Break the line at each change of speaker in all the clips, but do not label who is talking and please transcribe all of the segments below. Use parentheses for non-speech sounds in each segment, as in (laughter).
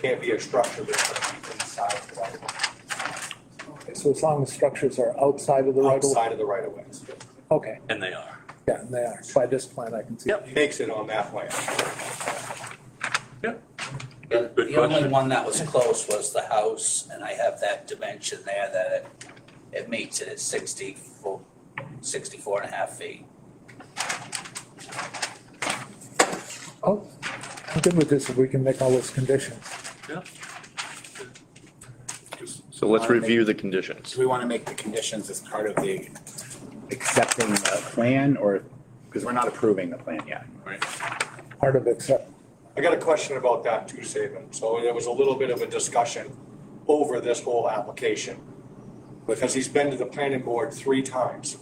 can't be a structure that's gonna be inside the right of way,
Okay, So as long as structures are outside of the right of way?
outside of the right of ways.
Okay,
And they are.
yeah, they are. By this plan, I can see.
Yep.
He makes it on that plan.
The
Good
the only
question.
one that was close was the house, and I have that dimension there that it, it meets it at 64 64 and a half feet.
Oh, I'm good with this if we can make all those conditions.
So let's review the conditions.
Do we want to make the conditions as part of the accepting the plan or, because we're not approving the plan yet.
Part of accept,
I got a question about that too, Saban. So there was a little bit of a discussion over this whole application. Because he's been to the planning board three times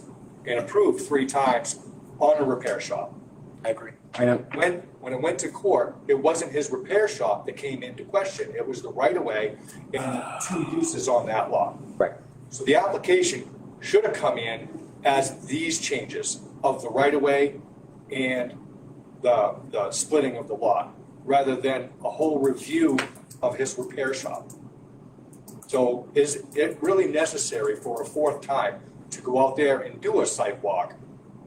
and approved three times on a repair shop.
I agree. I know,
When, when it went to court, it wasn't his repair shop that came into question. It was the right of way and the two uses on that lot.
right.
So the application should have come in as these changes of the right of way and the, the splitting of the lot, rather than a whole review of his repair shop. So is it really necessary for a fourth time to go out there and do a site walk?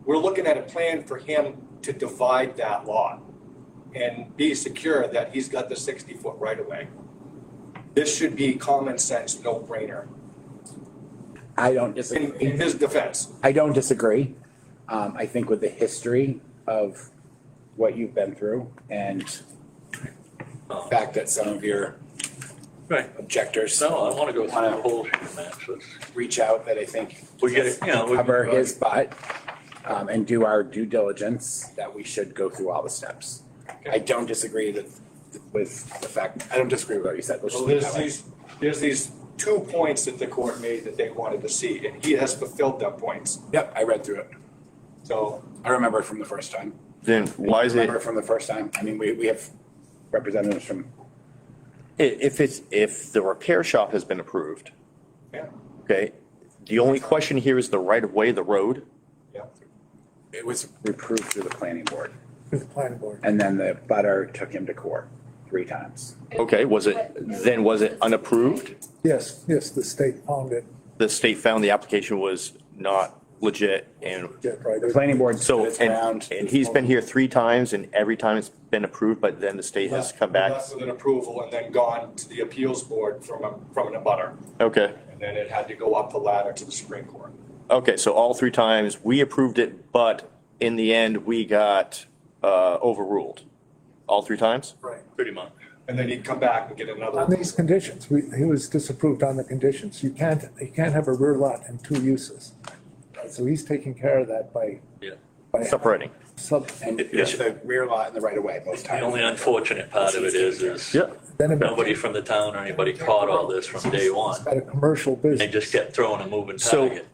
We're looking at a plan for him to divide that lot and be secure that he's got the sixty foot right of way. This should be common sense, no brainer
I
in, in
don't disagree.
his defense.
I don't disagree. Um, I think with the history of what you've been through and the fact that some of your
Right.
objectors
No, I want to go through the whole shooting match. Let's-
reach out that I think
We get it, you know. we-
cover his butt um, and do our due diligence that we should go through all the steps. I don't disagree with, with the fact, I don't disagree with what you said. Let's just
So
leave it
there's
that way.
these, there's these two points that the court made that they wanted to see, and he has fulfilled them points.
Yep, I read through it.
So
I remember it from the first time.
Then why is it,
I Remember it from the first time. I mean, we, we have representatives from,
i- if it's, if the repair shop has been approved,
Yeah,
okay? The only question here is the right of way, the road.
yeah.
it was reproved through the planning board.
through the planning board.
And then the butter took him to court three times.
Okay, was it, then was it unapproved?
Yes, yes, the state found it,
The state found the application was not legit and
yeah, right.
The planning board
so,
stood its ground.
and, and he's been here three times and every time it's been approved, but then the state has come back.
Left With an approval and then gone to the appeals board from a, from an abutter,
Okay,
and then it had to go up the ladder to the Supreme Court.
okay, so all three times, we approved it, but in the end, we got, uh, overruled. All three times?
Right.
Pretty much.
And then he'd come back and get another.
On these conditions, we, he was disapproved on the conditions. You can't, you can't have a rear lot and two uses. So he's taking care of that by,
Yeah.
by
Separating.
sub,
And
Yeah.
it's the rear lot and the right of way both
The
times.
only unfortunate part of it is, is
Yeah.
then it
nobody from the town or anybody caught all this from day one.
at a commercial business.
They just kept throwing a moving
So-
target.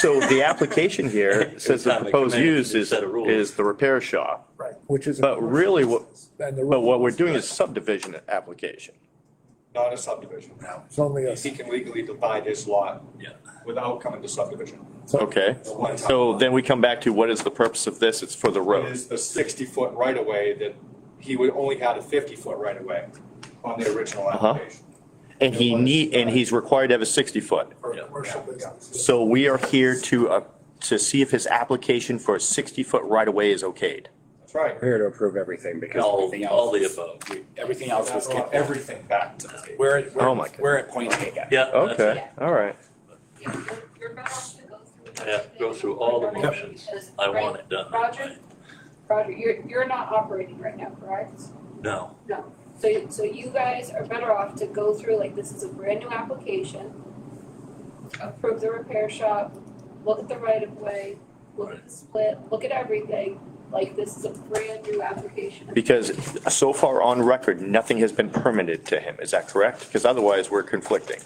So the application (laughs) here says the proposed use is, is the repair shop.
Right, which is. a
But
commercial
really what-
business. And the
But what we're doing is subdivision application.
Not a subdivision. No.
It's only a,
He can legally divide his lot
Yeah.
without coming to subdivision.
Okay.
It's a one-time
So
lot.
then we come back to what is the purpose of this? It's for the road.
is the sixty-foot right-of-way that he would, only had a fifty-foot right-of-way on the original
Uh-huh.
application.
And he need, and he's required to have a 60 foot.
for a
Yeah.
commercial business.
So we are here to, uh, to see if his application for a 60 foot right of way is okayed.
That's right.
We're here to approve everything because
All,
everything
all
else,
the above.
everything else was,
That brought everything back to the table.
we're, at-
Oh my
we're,
God.
we're at point taken.
Yeah. that's it.
all right.
Yeah, you're- you're better off to go through.
Yeah, go through all the motions.
Because-
I
right,
want it done. that
Roger,
way.
Roger, you're, you're not operating right now, correct?
No,
No. So, so you guys are better off to go through, like, this is a brand new application. Approve the repair shop, look at the right of way, look at the split, look at everything. Like, this is a brand new application.
Because so far on record, nothing has been permitted to him. Is that correct? Because otherwise we're conflicting.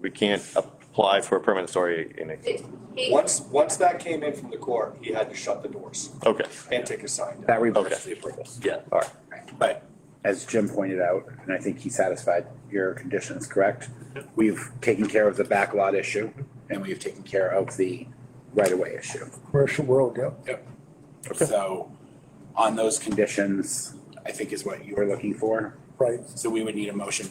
We can't apply for a permanent story in a,
It- he-
Once, once that came in from the court, he had to shut the doors
okay.
and take his sign down.
That reverses the approvals.
yeah.
But as Jim pointed out, and I think he satisfied your conditions, correct? We've taken care of the backlot issue and we've taken care of the right-of-way issue.
Commercial world, yeah.
So on those conditions, I think is what you were looking for.
right?
So we would need a motion